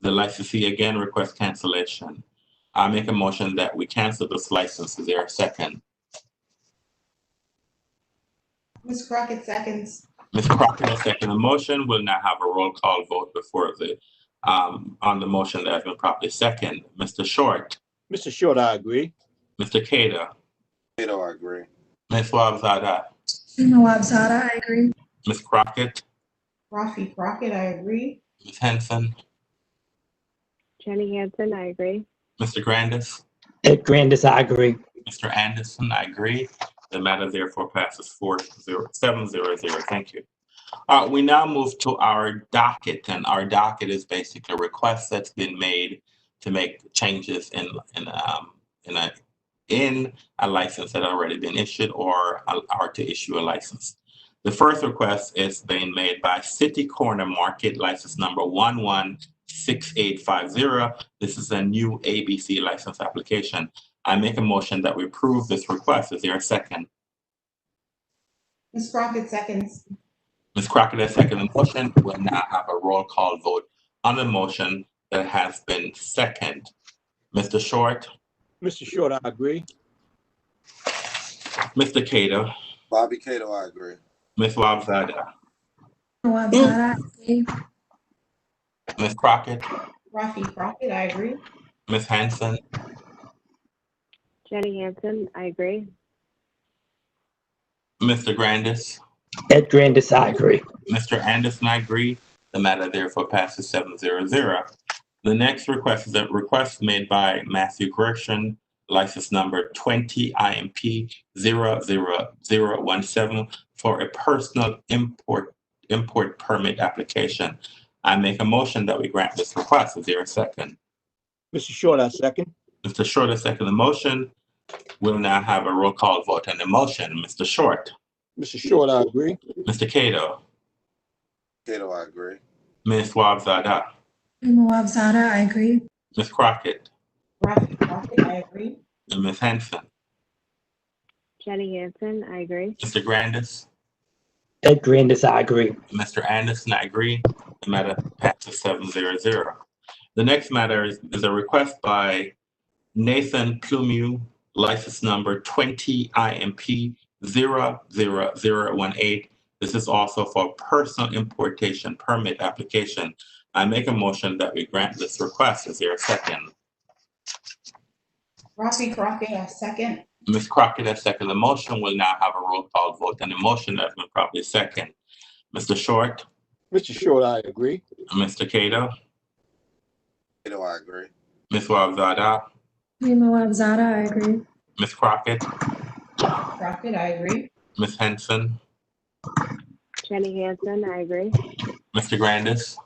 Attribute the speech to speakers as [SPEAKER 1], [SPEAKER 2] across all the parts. [SPEAKER 1] the licensee again requests cancellation. I make a motion that we cancel this license. Is there a second?
[SPEAKER 2] Ms. Crockett seconds.
[SPEAKER 1] Ms. Crockett has seconded the motion. We'll now have a roll call vote before the, um, on the motion that has been properly second. Mr. Short,
[SPEAKER 3] Mr. Short, I agree.
[SPEAKER 1] Mr. Kato,
[SPEAKER 4] Kato, I agree.
[SPEAKER 1] Ms. Wahab Zada,
[SPEAKER 5] Nawab Zada, I agree.
[SPEAKER 1] Ms. Crockett,
[SPEAKER 2] Rafi Crockett, I agree.
[SPEAKER 1] Ms. Henson,
[SPEAKER 6] Jenny Hansen, I agree.
[SPEAKER 1] Mr. Grandis.
[SPEAKER 7] Ed Grandis, I agree.
[SPEAKER 1] Mr. Anderson, I agree. The matter therefore passes four zero, seven zero zero. Thank you. Uh, we now move to our docket, and our docket is basically a request that's been made to make changes in, in, um, in a, in a license that had already been issued or, or to issue a license. The first request is being made by City Corner Market, license number one one six eight five zero. This is a new ABC license application. I make a motion that we approve this request. Is there a second?
[SPEAKER 2] Ms. Crockett seconds.
[SPEAKER 1] Ms. Crockett has seconded the motion. We'll now have a roll call vote on the motion that has been second. Mr. Short,
[SPEAKER 3] Mr. Short, I agree.
[SPEAKER 1] Mr. Cato,
[SPEAKER 4] Bobby Kato, I agree.
[SPEAKER 1] Ms. Wabzada,
[SPEAKER 5] Nawab Zada, I agree.
[SPEAKER 1] Ms. Crockett,
[SPEAKER 2] Rafi Crockett, I agree.
[SPEAKER 1] Ms. Hanson,
[SPEAKER 6] Jenny Hansen, I agree.
[SPEAKER 1] Mr. Grandis,
[SPEAKER 7] Ed Grandis, I agree.
[SPEAKER 1] Mr. Anderson, I agree. The matter therefore passes seven zero zero. The next request is a request made by Matthew Gresham, license number twenty IMP 00017 for a personal import, import permit application. I make a motion that we grant this request. Is there a second?
[SPEAKER 3] Mr. Short, I second.
[SPEAKER 1] Mr. Short has seconded the motion. We'll now have a roll call vote on the motion. Mr. Short,
[SPEAKER 3] Mr. Short, I agree.
[SPEAKER 1] Mr. Cato,
[SPEAKER 4] Kato, I agree.
[SPEAKER 1] Ms. Wahab Zada,
[SPEAKER 5] Nawab Zada, I agree.
[SPEAKER 1] Ms. Crockett,
[SPEAKER 2] Rafi Crockett, I agree.
[SPEAKER 1] and Ms. Hanson.
[SPEAKER 6] Jenny Hansen, I agree.
[SPEAKER 1] Mr. Grandis,
[SPEAKER 7] Ed Grandis, I agree.
[SPEAKER 1] Mr. Anderson, I agree. The matter passes seven zero zero. The next matter is, is a request by Nathan Plumeau, license number twenty IMP 00018. This is also for personal importation permit application. I make a motion that we grant this request. Is there a second?
[SPEAKER 2] Rafi Crockett, I second.
[SPEAKER 1] Ms. Crockett has seconded the motion. We'll now have a roll call vote on the motion that's been properly second. Mr. Short,
[SPEAKER 3] Mr. Short, I agree.
[SPEAKER 1] Mr. Cato,
[SPEAKER 4] Kato, I agree.
[SPEAKER 1] Ms. Wahab Zada,
[SPEAKER 5] Nawab Zada, I agree.
[SPEAKER 1] Ms. Crockett,
[SPEAKER 2] Crockett, I agree.
[SPEAKER 1] Ms. Henson,
[SPEAKER 6] Jenny Hansen, I agree.
[SPEAKER 1] Mr. Grandis,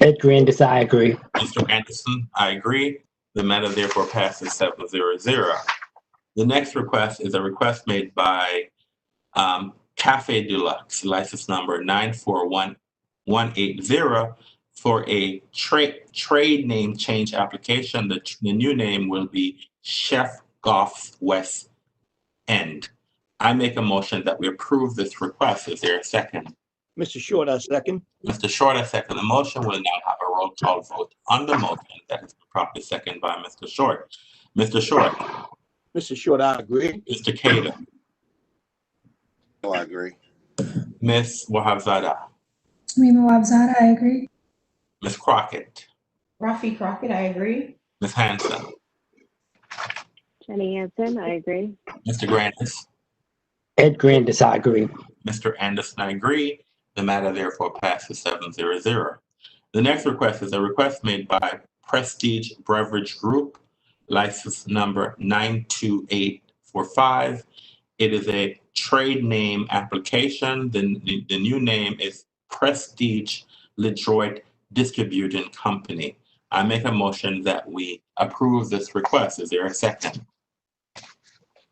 [SPEAKER 7] Ed Grandis, I agree.
[SPEAKER 1] Mr. Anderson, I agree. The matter therefore passes seven zero zero. The next request is a request made by um, Cafe Deluxe, license number nine four one one eight zero for a trade trade name change application. The, tr- the new name will be Chef Goff's West End. I make a motion that we approve this request. Is there a second?
[SPEAKER 3] Mr. Short, I second.
[SPEAKER 1] Mr. Short, I second the motion. We'll now have a roll call vote on the motion that has been properly seconded by Mr. Short. Mr. Short,
[SPEAKER 3] Mr. Short, I agree.
[SPEAKER 1] Mr. Kato,
[SPEAKER 4] Kato, I agree.
[SPEAKER 1] Ms. Wahab Zada,
[SPEAKER 5] Nawab Zada, I agree.
[SPEAKER 1] Ms. Crockett,
[SPEAKER 2] Rafi Crockett, I agree.
[SPEAKER 1] Ms. Hanson,
[SPEAKER 6] Jenny Hansen, I agree.
[SPEAKER 1] Mr. Grandis,
[SPEAKER 7] Ed Grandis, I agree.
[SPEAKER 1] Mr. Anderson, I agree. The matter therefore passes seven zero zero. The next request is a request made by Prestige Beverage Group, license number nine two eight four five. It is a trade name application. The, the, the new name is Prestige Detroit Distributing Company. I make a motion that we approve this request. Is there a second?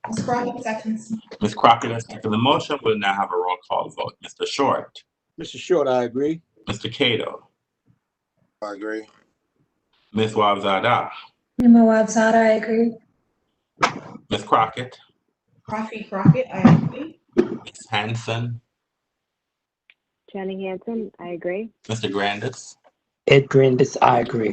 [SPEAKER 2] Ms. Crockett seconds.
[SPEAKER 1] Ms. Crockett has seconded the motion. We'll now have a roll call vote. Mr. Short,
[SPEAKER 3] Mr. Short, I agree.
[SPEAKER 1] Mr. Cato,
[SPEAKER 4] I agree.
[SPEAKER 1] Ms. Wabzada,
[SPEAKER 5] Nawab Zada, I agree.
[SPEAKER 1] Ms. Crockett,
[SPEAKER 2] Rafi Crockett, I agree.
[SPEAKER 1] Ms. Hanson,
[SPEAKER 6] Jenny Hansen, I agree.
[SPEAKER 1] Mr. Grandis,
[SPEAKER 7] Ed Grandis, I agree.